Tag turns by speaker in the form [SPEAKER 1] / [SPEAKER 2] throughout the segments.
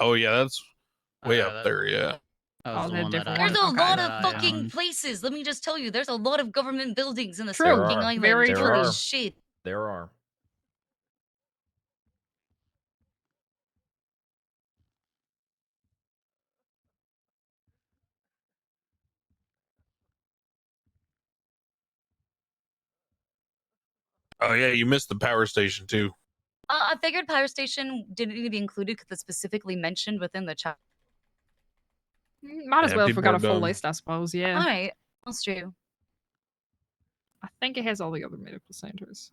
[SPEAKER 1] Oh yeah, that's way
[SPEAKER 2] Uh,
[SPEAKER 1] up
[SPEAKER 2] that-
[SPEAKER 1] there. Oh, Yeah.
[SPEAKER 2] that was
[SPEAKER 3] All
[SPEAKER 2] the
[SPEAKER 3] the
[SPEAKER 2] one that
[SPEAKER 3] different
[SPEAKER 2] I-
[SPEAKER 3] ones.
[SPEAKER 4] There's a
[SPEAKER 3] Okay.
[SPEAKER 4] lot
[SPEAKER 2] that
[SPEAKER 4] of
[SPEAKER 2] I,
[SPEAKER 4] fucking
[SPEAKER 2] um,
[SPEAKER 4] places. Let me just tell you, there's a lot of government buildings in this
[SPEAKER 3] True.
[SPEAKER 4] fucking
[SPEAKER 5] There are.
[SPEAKER 4] island.
[SPEAKER 3] Very
[SPEAKER 5] There
[SPEAKER 4] Holy
[SPEAKER 5] are.
[SPEAKER 4] shit.
[SPEAKER 5] There are.
[SPEAKER 1] Oh yeah, you missed the power station too.
[SPEAKER 4] Uh, I figured Power Station didn't need to be included because it's specifically mentioned within the chat.
[SPEAKER 3] Might as
[SPEAKER 1] Yeah,
[SPEAKER 3] well if we
[SPEAKER 1] people
[SPEAKER 3] got
[SPEAKER 1] are
[SPEAKER 3] a full
[SPEAKER 1] dumb.
[SPEAKER 3] list, I suppose. Yeah.
[SPEAKER 4] All right, that's true.
[SPEAKER 3] I think it has all the other medical centers.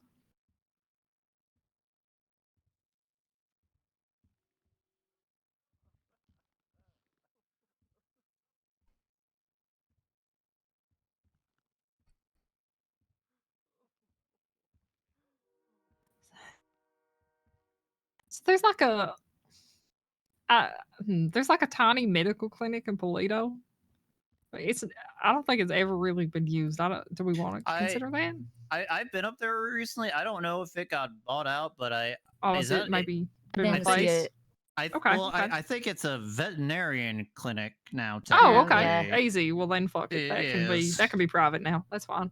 [SPEAKER 3] So there's like a, uh, there's like a tiny medical clinic in Polito. But It's I don't think it's ever really been used. I don't. Do we want to
[SPEAKER 2] I-
[SPEAKER 3] consider that?
[SPEAKER 2] I, I've been up there recently. I don't know if it got bought out, but I
[SPEAKER 3] Oh,
[SPEAKER 2] Is
[SPEAKER 3] is,
[SPEAKER 2] that-
[SPEAKER 3] it maybe
[SPEAKER 4] Then
[SPEAKER 3] been
[SPEAKER 2] I
[SPEAKER 4] see
[SPEAKER 2] think-
[SPEAKER 3] replaced?
[SPEAKER 4] it.
[SPEAKER 2] I th-
[SPEAKER 3] Okay,
[SPEAKER 2] well,
[SPEAKER 3] okay.
[SPEAKER 2] I, I think it's a veterinarian clinic now.
[SPEAKER 3] Oh,
[SPEAKER 4] Yeah,
[SPEAKER 3] okay,
[SPEAKER 2] technically.
[SPEAKER 3] easy. Well, then fuck it. That can be
[SPEAKER 2] Yes.
[SPEAKER 3] that can be private now. That's fine.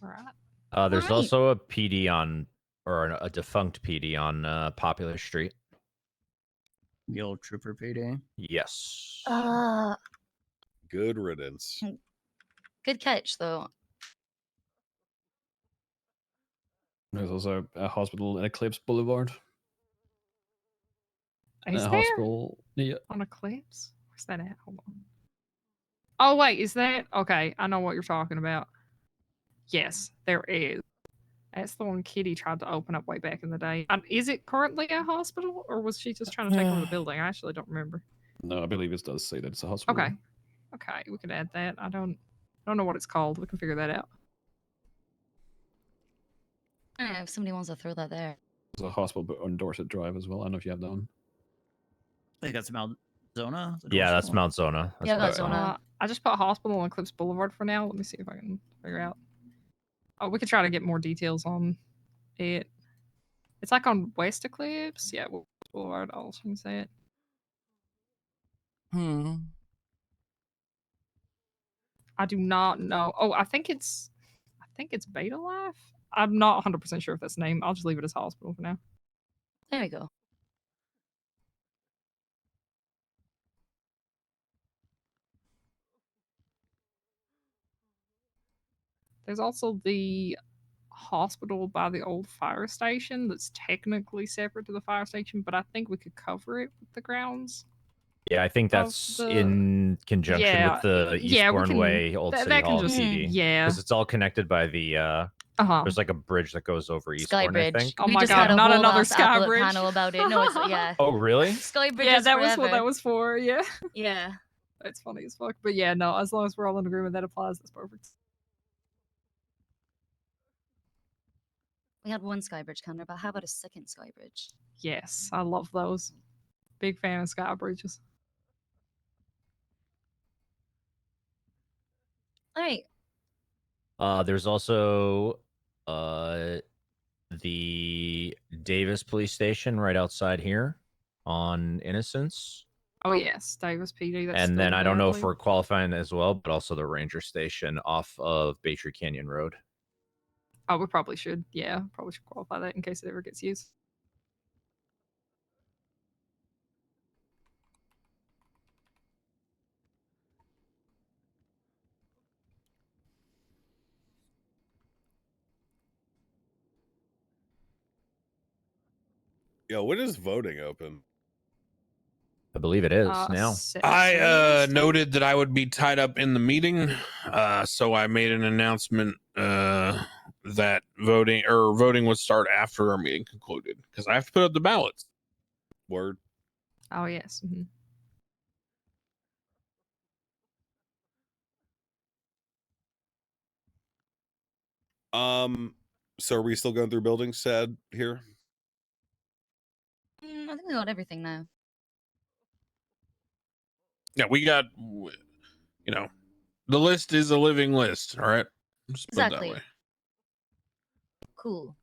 [SPEAKER 3] Right.
[SPEAKER 5] Uh, there's
[SPEAKER 4] Right.
[SPEAKER 5] also a PD on, or an, a defunct PD on uh, Popular Street.
[SPEAKER 2] The old trooper PD.
[SPEAKER 5] Yes.
[SPEAKER 4] Uh,
[SPEAKER 6] Good riddance.
[SPEAKER 4] good catch, though.
[SPEAKER 7] There's also a hospital in Eclipse Boulevard.
[SPEAKER 3] Is
[SPEAKER 7] a
[SPEAKER 3] there
[SPEAKER 7] hospital. Yeah.
[SPEAKER 3] on Eclipse? Where's that at? Hold on. Oh wait, is that okay? I know what you're talking about. Yes, there is. That's the one Kitty tried to open up way back in the day. Um, is it currently a hospital, or was she just trying to take over the building? I actually don't remember.
[SPEAKER 7] No, I believe it does say that it's a hospital.
[SPEAKER 3] Okay. Okay, we can add that. I don't I don't know what it's called. We can figure that out.
[SPEAKER 4] I don't know if somebody wants to throw that there.
[SPEAKER 7] There's a hospital but on Dorset Drive as well. I don't know if you have that one.
[SPEAKER 2] I think that's Mount Zona. the
[SPEAKER 5] yeah,
[SPEAKER 2] North
[SPEAKER 5] that's
[SPEAKER 2] Zona.
[SPEAKER 5] Mount Zona. That's
[SPEAKER 4] Yeah,
[SPEAKER 5] what I
[SPEAKER 4] that's
[SPEAKER 5] found.
[SPEAKER 4] Zona.
[SPEAKER 3] Uh, I just put hospital on Eclipse Boulevard for now. Let me see if I can figure out. Oh, we could try to get more details on it. It's like on West Eclipse. Yeah, West Boulevard. I'll change that.
[SPEAKER 8] Hmm.
[SPEAKER 3] I do not know. Oh, I think it's I think it's Beta Life. I'm not 100% sure if that's the name. I'll just leave it as hospital for now.
[SPEAKER 4] There we go.
[SPEAKER 3] There's also the hospital by the old fire station that's technically separate to the fire station, but I think we could cover it with the grounds.
[SPEAKER 5] Yeah, I
[SPEAKER 4] Oh,
[SPEAKER 5] think
[SPEAKER 3] Of
[SPEAKER 5] that's
[SPEAKER 3] the-
[SPEAKER 5] in conjunction
[SPEAKER 3] Yeah,
[SPEAKER 5] with the
[SPEAKER 3] yeah, we
[SPEAKER 5] Eastbourne
[SPEAKER 3] can-
[SPEAKER 5] Way Old
[SPEAKER 3] That,
[SPEAKER 5] City
[SPEAKER 3] that
[SPEAKER 5] Hall
[SPEAKER 3] can just
[SPEAKER 5] PD.
[SPEAKER 3] yeah.
[SPEAKER 5] Because it's all connected by the. Uh,
[SPEAKER 3] Uh huh.
[SPEAKER 5] there's like a bridge that goes over Eastbourne.
[SPEAKER 4] Sky Bridge.
[SPEAKER 5] I think.
[SPEAKER 3] Oh
[SPEAKER 4] we
[SPEAKER 3] my
[SPEAKER 4] just
[SPEAKER 3] God,
[SPEAKER 4] had a
[SPEAKER 3] not
[SPEAKER 4] whole
[SPEAKER 3] another
[SPEAKER 4] ass
[SPEAKER 3] Sky
[SPEAKER 4] outlet
[SPEAKER 3] Bridge.
[SPEAKER 4] panel about it. No, it's yeah.
[SPEAKER 5] Oh really?
[SPEAKER 4] Sky Bridge.
[SPEAKER 3] Yeah,
[SPEAKER 4] is
[SPEAKER 3] that was what that
[SPEAKER 4] forever.
[SPEAKER 3] was for. Yeah,
[SPEAKER 4] Yeah.
[SPEAKER 3] that's funny as fuck. But yeah, no, as long as we're all in agreement, that applies. That's perfect.
[SPEAKER 4] We had one Skybridge counter, but how about a second Skybridge?
[SPEAKER 3] Yes, I love those. Big fan of sky bridges.
[SPEAKER 4] All right.
[SPEAKER 5] Uh, there's also uh, the Davis Police Station right outside here on Innocence,
[SPEAKER 3] Oh yes, Davis PD. That's
[SPEAKER 5] and
[SPEAKER 3] still
[SPEAKER 5] then I don't know if
[SPEAKER 3] valid.
[SPEAKER 5] we're qualifying as well, but also the Ranger Station off of Baytree Canyon Road.
[SPEAKER 3] Oh, we probably should. Yeah, probably should qualify that in case it ever gets used.
[SPEAKER 6] Yo, when is voting open?
[SPEAKER 5] I believe it is
[SPEAKER 3] Uh,
[SPEAKER 5] now.
[SPEAKER 3] se-
[SPEAKER 1] I
[SPEAKER 3] seven
[SPEAKER 1] uh,
[SPEAKER 3] days?
[SPEAKER 1] noted that I would be tied up in the meeting, uh, so I made an announcement uh, that voting or voting would start after our meeting concluded because I have to put up the ballots.
[SPEAKER 6] Word.
[SPEAKER 3] Oh yes. mhm.
[SPEAKER 6] Um, so are we still going through buildings sad here?
[SPEAKER 4] Mm, I think we got everything now.
[SPEAKER 1] Yeah, we got, w- you know, the list is a living list. All right, Just put it that
[SPEAKER 4] Exactly.
[SPEAKER 1] way.
[SPEAKER 4] Cool.